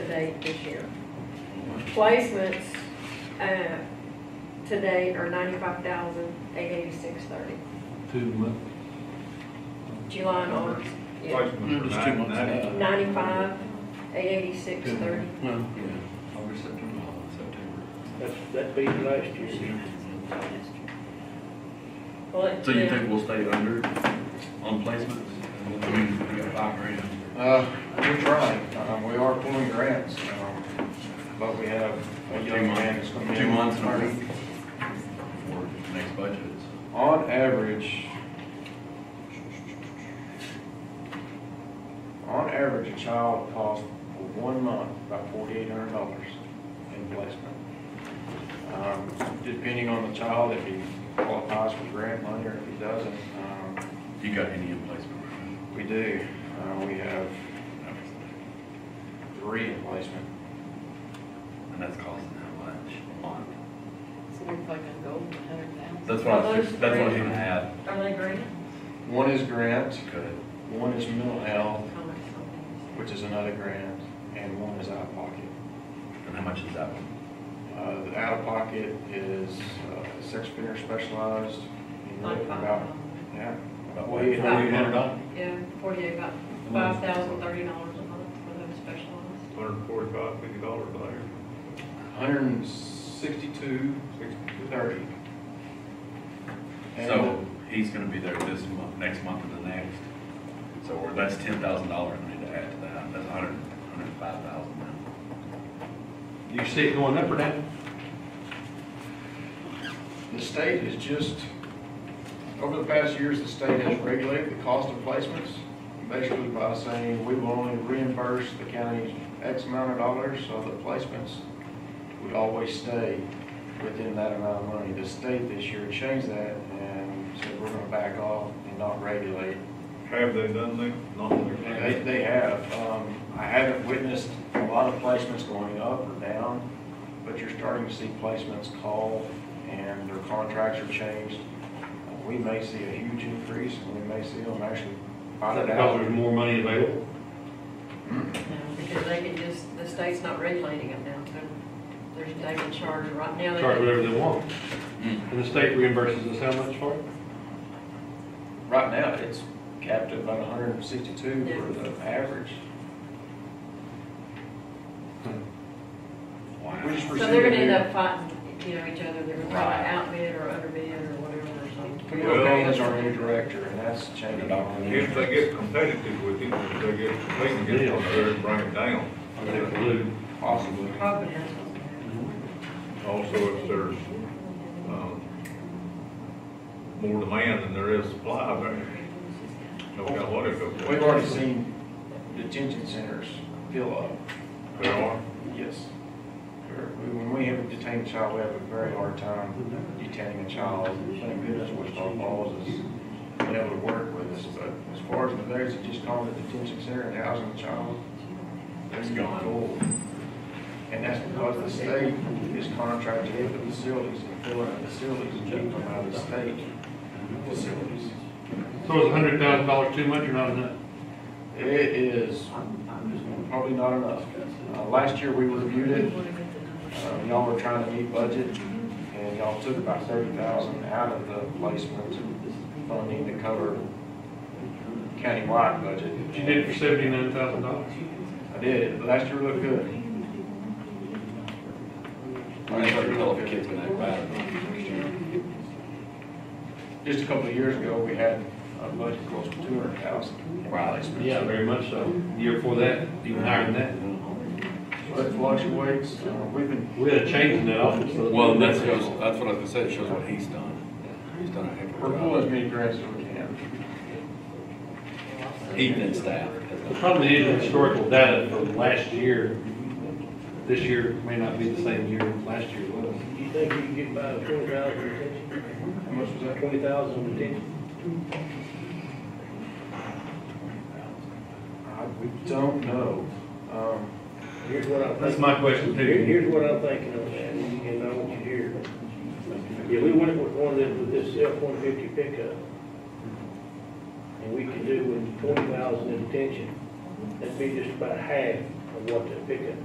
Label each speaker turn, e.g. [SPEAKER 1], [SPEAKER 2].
[SPEAKER 1] paid this year. Placements, uh, today are ninety-five thousand, eight eighty-six thirty,
[SPEAKER 2] two months.
[SPEAKER 1] July and August. yeah.
[SPEAKER 3] Mm,
[SPEAKER 4] Placements
[SPEAKER 3] just
[SPEAKER 4] are
[SPEAKER 3] two
[SPEAKER 4] nine-
[SPEAKER 3] months
[SPEAKER 4] nine-
[SPEAKER 3] out.
[SPEAKER 1] Ninety-five, eight eighty-six thirty.
[SPEAKER 3] Well,
[SPEAKER 4] August, September, September.
[SPEAKER 5] That's, that beat last year.
[SPEAKER 1] Well, it-
[SPEAKER 4] So you think we'll stay under on placements? I mean, we got five grand.
[SPEAKER 6] Uh, we're trying, um, we are pulling grants, um, but we have a young man that's gonna be.
[SPEAKER 4] Two months and a week. For next budget.
[SPEAKER 6] On average, on average, a child costs for one month about forty-eight hundred dollars in placement. Um, depending on the child, if he qualifies for grant money or if he doesn't, um,
[SPEAKER 4] You got any in placement?
[SPEAKER 6] we do, uh, we have three in placement.
[SPEAKER 4] And that's costing how much a month?
[SPEAKER 7] So we're probably gonna go over a hundred thousand.
[SPEAKER 4] That's what I was,
[SPEAKER 1] Those
[SPEAKER 4] that's what I was
[SPEAKER 1] three.
[SPEAKER 4] gonna add.
[SPEAKER 1] Are they green?
[SPEAKER 6] One is grant,
[SPEAKER 4] Good.
[SPEAKER 6] one is mental health,
[SPEAKER 1] How much something?
[SPEAKER 6] which is another grant, and one is out of pocket.
[SPEAKER 4] And how much is that one?
[SPEAKER 6] Uh, the out of pocket is, uh, sex offender specialized, you know, about, yeah.
[SPEAKER 4] About what?
[SPEAKER 6] forty-eight
[SPEAKER 3] forty-eight
[SPEAKER 6] hundred
[SPEAKER 3] hundred
[SPEAKER 6] dollars.
[SPEAKER 3] dollars.
[SPEAKER 1] Yeah, forty-eight, about five thousand, thirty dollars a month for those specialized.
[SPEAKER 8] Hundred and forty-five, fifty dollars a year.
[SPEAKER 6] Hundred and sixty-two, thirty. And
[SPEAKER 4] So he's gonna be there this month, next month and the next. So we're- that's ten thousand dollars we need to add to that. That's a hundred, hundred and five thousand now.
[SPEAKER 3] You see it going up or down?
[SPEAKER 6] The state has just, over the past years, the state has regulated the cost of placements, basically by saying, we will only reimburse the county X amount of dollars of the placements. We always stay within that amount of money. The state this year changed that and said, we're gonna back off and not regulate.
[SPEAKER 8] Have they done that? Not really.
[SPEAKER 6] They, they have, um, I haven't witnessed a lot of placements going up or down, but you're starting to see placements call and their contracts are changed. Uh, We may see a huge increase and we may see them actually buy
[SPEAKER 3] Because
[SPEAKER 6] it out. Mm-hmm.
[SPEAKER 3] there's more money available.
[SPEAKER 1] No, Um, because they can just, the state's not regulating them now, so there's, they can charge right now. they
[SPEAKER 3] Charge
[SPEAKER 1] can-
[SPEAKER 3] whatever they want.
[SPEAKER 6] Hmm.
[SPEAKER 3] And the state reimburses us how much for it?
[SPEAKER 6] Right now, it's capped at about hundred and sixty-two for the average. We just
[SPEAKER 1] So
[SPEAKER 6] received
[SPEAKER 1] they're
[SPEAKER 6] a
[SPEAKER 1] gonna end
[SPEAKER 6] new-
[SPEAKER 1] up fighting, you know, each other, they're gonna try
[SPEAKER 4] Right.
[SPEAKER 1] to outbid or underbid or whatever or something.
[SPEAKER 6] Camille Payne is our new director and that's changing.
[SPEAKER 8] If they get competitive with him, if they get, they can get on there and bring it down.
[SPEAKER 3] I mean, if we lose,
[SPEAKER 6] Possibly.
[SPEAKER 1] Probably that's what's gonna happen.
[SPEAKER 8] Also, if there's, um, more demand than there is supply there.
[SPEAKER 3] Uh,
[SPEAKER 8] No matter what it goes.
[SPEAKER 6] We've already seen detention centers fill up.
[SPEAKER 8] There are.
[SPEAKER 6] Yes. When we have a detained child, we have a very hard time detaining a child. Thank goodness Wichita Falls has been able to work with us, but as far as the days of just calling the detention center and housing the child, that's gone cold. And that's because the state is contracted with the facilities and filling the facilities and keeping them out of the state facilities.
[SPEAKER 3] so is a hundred thousand dollars too much or not enough?
[SPEAKER 6] It is probably not enough. Uh, Last year, we reviewed it, Uh, Y'all were trying to meet budget, and y'all took about thirty thousand out of the placement funding to cover countywide budget.
[SPEAKER 3] But you did it for seventy-nine thousand dollars.
[SPEAKER 6] I did, last year looked good.
[SPEAKER 4] I mean, we know if the kids been that bad or not.
[SPEAKER 6] Just a couple of years ago, we had a budget close to two hundred thousand.
[SPEAKER 4] Right.
[SPEAKER 3] Yeah, very much so. Year before that, even higher than
[SPEAKER 6] So it fluctuates, Uh, we've been,
[SPEAKER 3] that. We had a change in that office. so-
[SPEAKER 4] Well, that shows, that's what I was gonna say, it shows what he's done. He's done a heck
[SPEAKER 6] we're
[SPEAKER 4] of
[SPEAKER 6] pulling
[SPEAKER 4] a
[SPEAKER 6] as
[SPEAKER 4] job.
[SPEAKER 6] many grants as we can.
[SPEAKER 4] Ethan and staff.
[SPEAKER 3] The problem is the historical data from last year, this year may not be the same year last year was.
[SPEAKER 5] You think you can get by with twenty thousand detention?
[SPEAKER 6] How much was that?
[SPEAKER 5] Twenty thousand detention?
[SPEAKER 6] Uh, We don't know. Um,
[SPEAKER 5] Here's what I'm
[SPEAKER 3] That's
[SPEAKER 5] thinking.
[SPEAKER 3] my question
[SPEAKER 5] Here-
[SPEAKER 3] too.
[SPEAKER 5] Here's what I'm thinking on that, and and I want you to hear. Yeah, we went with one of them, with this F-150 pickup. And we could do with twenty thousand in detention. That'd be just about half of what that pickup